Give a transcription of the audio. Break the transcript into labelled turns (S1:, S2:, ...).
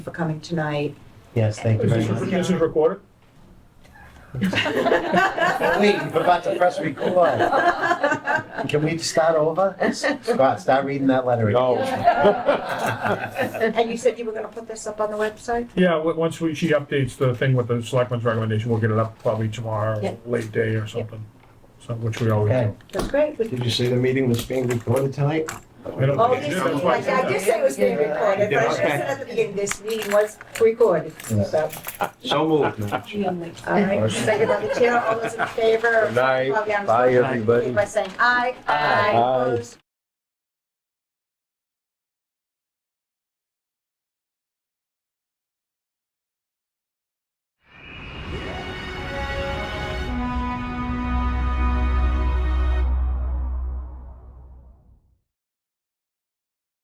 S1: for coming tonight.
S2: Yes, thank you very much.
S3: This is recorded?
S2: Wait, we're about to press record. Can we start over? Scott, start reading that letter. again.
S3: No.
S1: And you said you were gonna put this up on the website?
S3: Yeah, w- once we, she updates the thing with the selectmen's recommendation, we'll get it up probably
S1: Yeah.
S3: tomorrow, late day or something. So, which we always
S2: Okay.
S3: do.
S1: That's great. We-
S4: Did you say the meeting was being recorded tonight?
S3: I don't-
S1: Oh, this,
S3: Yeah, that's why I said
S1: I did say it was being recorded, but I should have said at the beginning, this meeting was recorded, so.
S4: So moved.
S1: All right, second by the chair, all those in favor?
S5: Good night.
S1: Well, yeah, I'm
S5: Bye,
S1: sorry.
S5: everybody.
S1: By saying aye. Aye. Opposed,